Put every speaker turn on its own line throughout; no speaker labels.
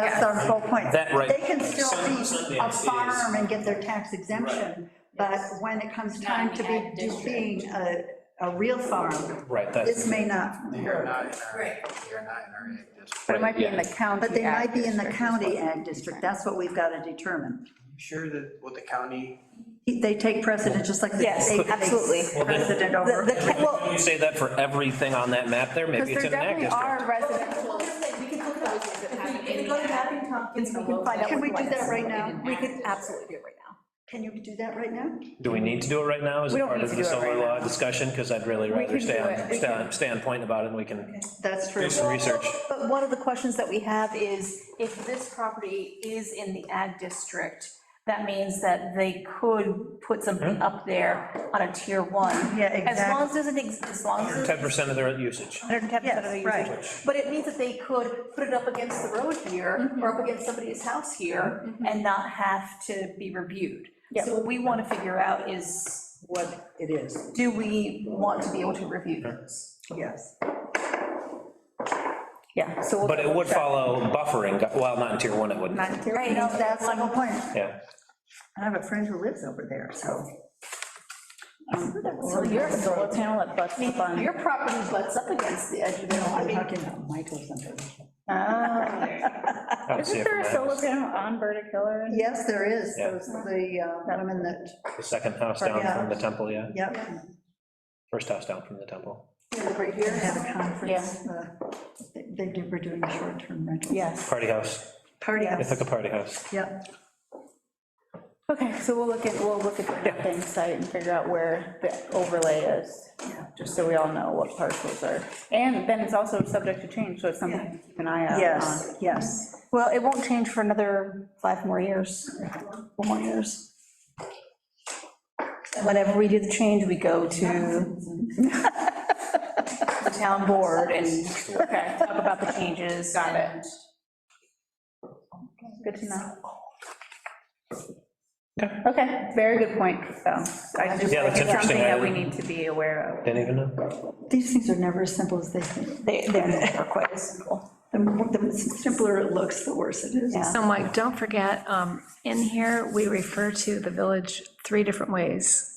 the whole point.
That, right.
They can still
Some-
be a
something
farm and get their tax exemption, but when it comes time to be,
Non-ag
just
district.
being a, a real farm,
Right, that's,
this may not,
You're not in our,
Right.
you're not in our ag district.
But it might be in the county.
but they might be in the
ag district.
county ag district, that's what we've got to determine.
You Sure that what the county,
They take precedent, just like the
Yes,
state takes
absolutely.
precedent over.
The- the ca- well,
you say that for everything on that map there, maybe
Because
it's
there
in an ag
definitely
district.
are residential,
We can look at those things that happen
If
in
we
the
go to
ag.
Mapping Tompkins, we can find out.
Can
what
we do
the
that
ones
right
that
now?
didn't
We
happen
could
is.
absolutely do it right now.
Can you do that right now?
Do we need to do it right now? Is
We
it
don't
part
need
of
to
the
do it
solar
right
law
now.
discussion? Because I'd really rather
can
stay
do
on,
it. We
stay on,
can-
stay on point about it, and we can
That's true.
do some research.
But one of the questions that we have is, if this property is in the ag district, that means that they could put something up there on a tier one.
Yeah,
As long
exactly.
as it doesn't, ex- as long as.
10% of their usage.
Hundred and ten percent of the
Yes,
usage.
right.
But it means that they could put it up against the road here, or up against somebody's house here, and not have to be reviewed. So what we want to figure out is,
What it is,
do we want to be able to review those?
yes.
Yeah, so. we'll-
But it would follow buffering, gu- well, not in tier one, it wouldn't.
Not here,
Right,
no,
no,
that's the whole point.
Yeah,
I have a friend who lives over there, so.
So your solar
panel that butts up on.
Your property butts up against the edge of the.
I'm talking about Michael something.
I would see
Isn't
it
there
from
a
that.
solar panel on Burdick Hill or?
Yes, there is,
Yeah.
those, the uh, women that,
The second house down
Yeah.
from the temple, yeah,
yep,
first house down from the temple.
Right here.
have a conference. uh, they- They do, we're doing short-term rentals.
Yes.
Party house,
Party
It's like
house,
a party house.
yep.
Okay, so we'll look at, we'll look at the mapping site and figure out where the overlay is, just so we all know what parcels are. And then it's also subject to change, so it's something to keep an eye out on.
Yes, yes.
Well, it won't change for another five more years, four more years. Whenever we do the change, we go to the town board and
Okay,
talk about the changes. Got it.
good to know. Okay, very good point, so I just,
Yeah, that's
it's something
interesting.
that
I
we need to be aware of.
Didn't even know.
These things are never as simple as they think.
They, they're quite as simple.
The more- the simpler it looks, the worse it is.
So Mike, don't forget, um, in here, we refer to the village three different ways.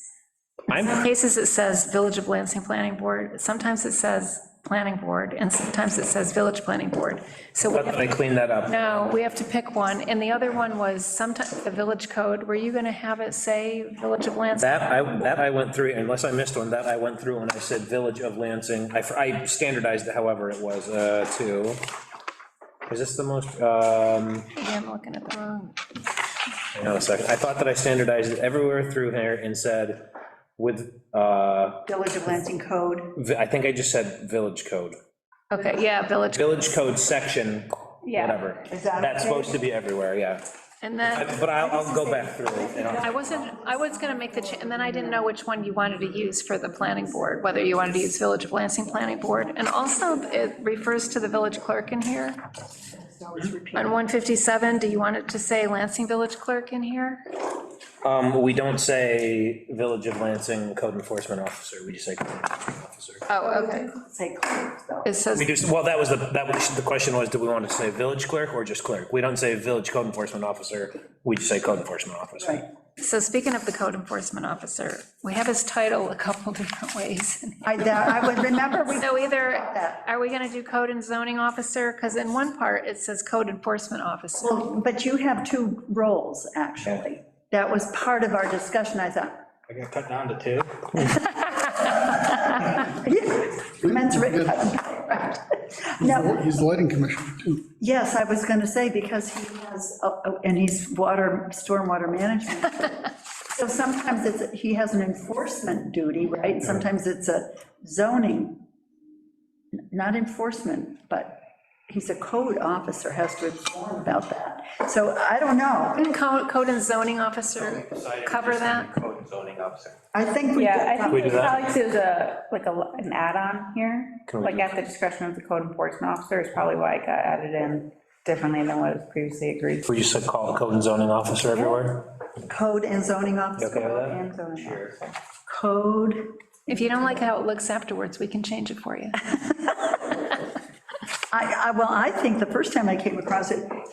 In some
I'm,
cases, it says Village of Lansing Planning Board, sometimes it says Planning Board, and sometimes it says Village Planning Board. So
I
we have
thought I cleaned that up.
No, we have to pick one, and the other one was sometimes the village code, were you gonna have it say Village of Lansing?
That I, that I went through, unless I missed one, that I went through when I said Village of Lansing. I- I standardized it however it was, uh, to, is this the most, um,
Maybe I'm looking at the wrong.
hang on a second. I thought that I standardized it everywhere through here and said with, uh,
Village of Lansing Code,
vi- I think I just said Village Code.
Okay, yeah, village,
Village Code section,
Yeah.
whatever.
Is that
That's
okay?
supposed to be everywhere, yeah.
and then,
But I'll, I'll go back through and I'll
I wasn't, I was gonna make the, cha- and then I didn't know which one you wanted to use for the planning board, whether you wanted to use Village of Lansing Planning Board, and also it refers to the village clerk in here. On 157, do you want it to say Lansing Village Clerk in here?
Um, we don't say Village of Lansing Code Enforcement Officer, we just say Code Enforcement Officer.
Oh, okay,
say code, though.
it says.
We do, well, that was the, that was, the question was, do we want to say Village Clerk or just Clerk? We don't say Village Code Enforcement Officer, we just say Code Enforcement
Right.
Officer.
So speaking of the code enforcement officer, we have his title a couple different ways.
I, that- I would remember, we,
So either, are we going to do code and zoning officer? Because in one part, it says code enforcement officer.
Well, but you have two roles, actually. That was part of our discussion, I thought,
I got cut down to two.
yeah, men's rights. No,
He's the lighting commissioner, too.
yes, I was going to say, because he has, oh, oh, and he's water, stormwater management. So sometimes it's, he has an enforcement duty, right? Sometimes it's a zoning, not enforcement, but he's a code officer, has to inform about that. So I don't know.
Wouldn't co- code and zoning officer cover that?
Code and zoning officer.
I think we.
Yeah, I
we
think
do
it's
that?
probably to the, like a, an add-on here,
Can we
like
do-
uh, at the discretion of the code enforcement officer is probably why it got added in differently than what was previously agreed.
We just said call Code and Zoning Officer everywhere?
Code and zoning
You
officer.
okay with that?
And zoning.
Code,
If you don't like how it looks afterwards, we can change it for you.
I, I, well, I think the first time I came across it,